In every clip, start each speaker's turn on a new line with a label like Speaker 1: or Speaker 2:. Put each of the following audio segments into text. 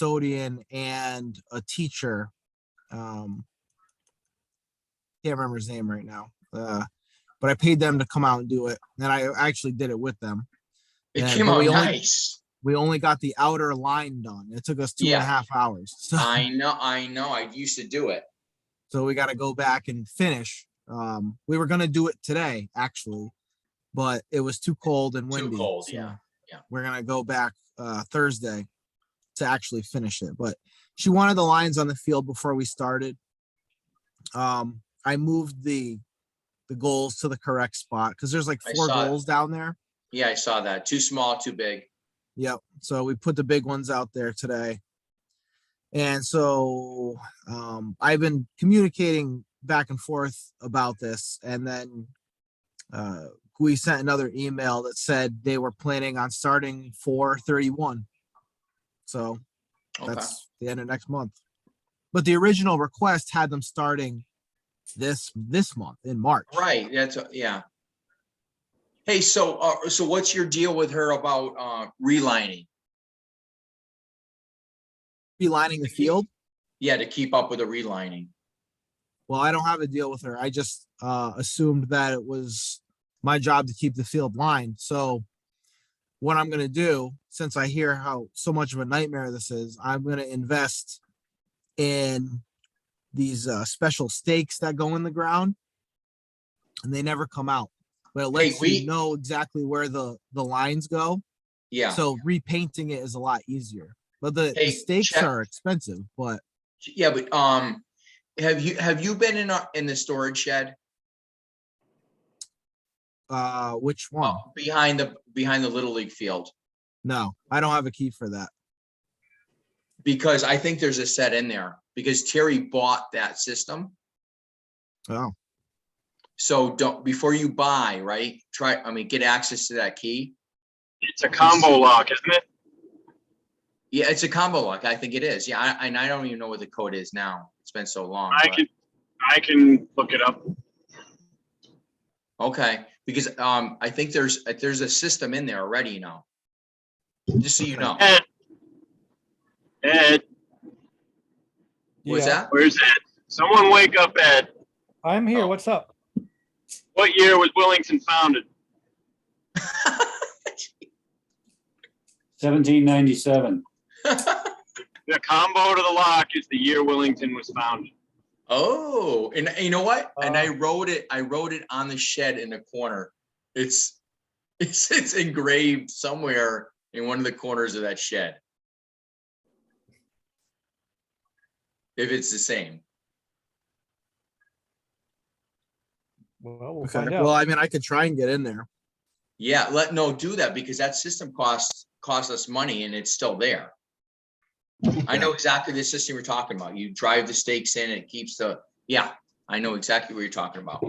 Speaker 1: custodian and a teacher. Um, can't remember his name right now, uh, but I paid them to come out and do it. And I actually did it with them.
Speaker 2: It
Speaker 1: Yeah,
Speaker 2: came
Speaker 1: but
Speaker 2: out
Speaker 1: we only-
Speaker 2: nice.
Speaker 1: We only got the outer line done. It took us two and a
Speaker 2: Yeah.
Speaker 1: half hours. So,
Speaker 2: I know, I know. I used to do it.
Speaker 1: so we got to go back and finish. Um, we were gonna do it today, actually, but it was too cold and
Speaker 2: Too
Speaker 1: windy.
Speaker 2: cold,
Speaker 1: so-
Speaker 2: yeah.
Speaker 1: we're gonna go back uh Thursday to actually finish it. But she wanted the lines on the field before we started. Um, I moved the the goals to the correct spot because there's like
Speaker 2: I
Speaker 1: four
Speaker 2: saw it.
Speaker 1: goals down there.
Speaker 2: Yeah, I saw that. Too small, too big.
Speaker 1: Yep. So we put the big ones out there today. And so um, I've been communicating back and forth about this. And then uh, we sent another email that said they were planning on starting 431. So
Speaker 2: Okay.
Speaker 1: that's the end of next month. But the original request had them starting this this month in March.
Speaker 2: Right, that's, yeah. Hey, so, uh, so what's your deal with her about, uh, relining?
Speaker 1: Be lining the field.
Speaker 2: Yeah, to keep up with the relining.
Speaker 1: Well, I don't have a deal with her. I just uh, assumed that it was my job to keep the field lined. So, what I'm going to do, since I hear how so much of a nightmare this is, I'm going to invest in these uh, special stakes that go in the ground, and they never come out. But it lets
Speaker 2: we-
Speaker 1: you know exactly where the the lines go.
Speaker 2: Yeah.
Speaker 1: So repainting it is a lot easier. But the, the
Speaker 2: Hey,
Speaker 1: stakes
Speaker 2: check-
Speaker 1: are expensive. But
Speaker 2: Yeah, but, um, have you, have you been in, a- in the storage shed?
Speaker 1: uh, which one?
Speaker 2: Oh. Behind the, behind the Little League field?
Speaker 1: No, I don't have a key for that.
Speaker 2: Because I think there's a set in there, because Terry bought that system.
Speaker 1: Oh,
Speaker 2: So don't, before you buy, right, try, I mean, get access to that key.
Speaker 3: It's a combo lock, isn't it?
Speaker 2: Yeah, it's a combo lock. I think it is. Yeah, I, and I don't even know what the code is now. It's been so long.
Speaker 3: I
Speaker 2: but-
Speaker 3: can, I can look it up.
Speaker 2: Okay, because, um, I think there's, there's a system in there already, you know. Just so you know.
Speaker 3: Ed, Ed,
Speaker 2: What's
Speaker 4: Yeah.
Speaker 2: that?
Speaker 3: where's Ed? Someone wake up Ed.
Speaker 4: I'm
Speaker 2: Oh.
Speaker 4: here. What's up?
Speaker 3: What year was Willington founded?
Speaker 5: 1797.
Speaker 3: The combo to the lock is the year Willington was founded.
Speaker 2: Oh, and you know what? And I
Speaker 4: Oh.
Speaker 2: wrote it, I wrote it on the shed in the corner. It's, it's, it's engraved somewhere in one of the corners of that shed. If it's the same.
Speaker 4: Well, we'll
Speaker 1: okay.
Speaker 4: find
Speaker 1: Well,
Speaker 4: out.
Speaker 1: I mean, I could try and get in there.
Speaker 2: Yeah, let, no, do that because that system costs, costs us money and it's still there. I know exactly the system you're talking about. You drive the stakes in, it keeps the, yeah, I know exactly what you're talking about.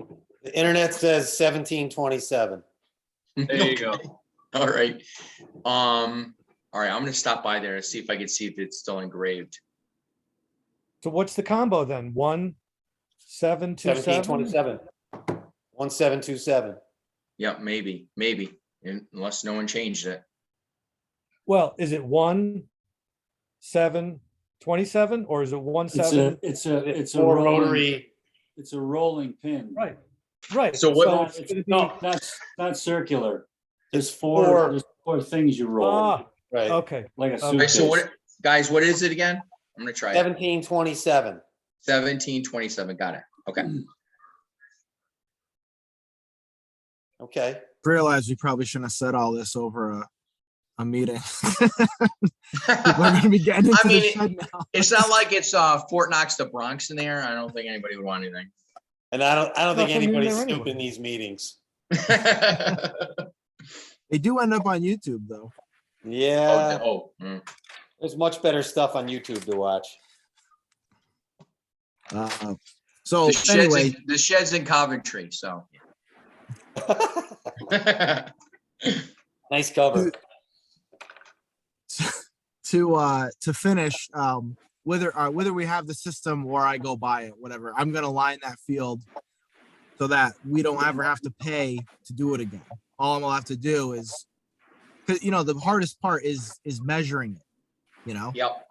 Speaker 6: The internet says seventeen twenty-seven.
Speaker 3: There you go.
Speaker 2: All right. Um, all right, I'm gonna stop by there and see if I can see if it's still engraved.
Speaker 4: So what's the combo then? One, seven, two,
Speaker 6: Seventeen
Speaker 4: seven?
Speaker 6: twenty-seven. One seven two seven.
Speaker 2: Yep, maybe, maybe, un- unless no one changed it.
Speaker 4: Well, is it one, seven, twenty-seven, or is it one,
Speaker 5: It's a,
Speaker 4: seven?
Speaker 5: it's a, it's a
Speaker 6: Or
Speaker 5: rolling,
Speaker 6: rotary.
Speaker 5: it's a rolling pin.
Speaker 4: Right, right.
Speaker 2: So
Speaker 5: It's
Speaker 2: what-
Speaker 5: not- it's not- That's, not circular. There's four,
Speaker 6: four.
Speaker 5: there's four things you roll,
Speaker 4: Ah,
Speaker 6: Right.
Speaker 4: okay.
Speaker 5: like a
Speaker 4: Okay, so
Speaker 2: All right,
Speaker 5: suitcase.
Speaker 2: so what, guys, what is it again? I'm gonna try it.
Speaker 6: Seventeen twenty-seven.
Speaker 2: Seventeen twenty-seven, got it. Okay.
Speaker 6: Okay.
Speaker 1: Realize we probably shouldn't have said all this over a, a meeting. We're gonna be getting into the
Speaker 2: I mean,
Speaker 1: shed now.
Speaker 2: It's not like it's uh Fort Knox, the Bronx in there. I don't think anybody would want anything.
Speaker 6: And I don't, I don't think
Speaker 4: Nothing in
Speaker 6: anybody's
Speaker 4: there anyway.
Speaker 6: snooping these meetings.
Speaker 1: They do end up on YouTube though.
Speaker 6: Yeah,
Speaker 2: Oh, oh, mm.
Speaker 6: there's much better stuff on YouTube to watch.
Speaker 1: Uh, so
Speaker 2: The shed's
Speaker 1: anyway,
Speaker 2: in- the shed's in Coventry, so.
Speaker 6: Nice cover.
Speaker 1: to uh to finish, um, whether uh, whether we have the system or I go buy it, whatever, I'm gonna line that field so that we don't ever have to pay to do it again. All I'm gonna have to do is, cause you know the hardest part is is measuring it. You know.
Speaker 2: Yep,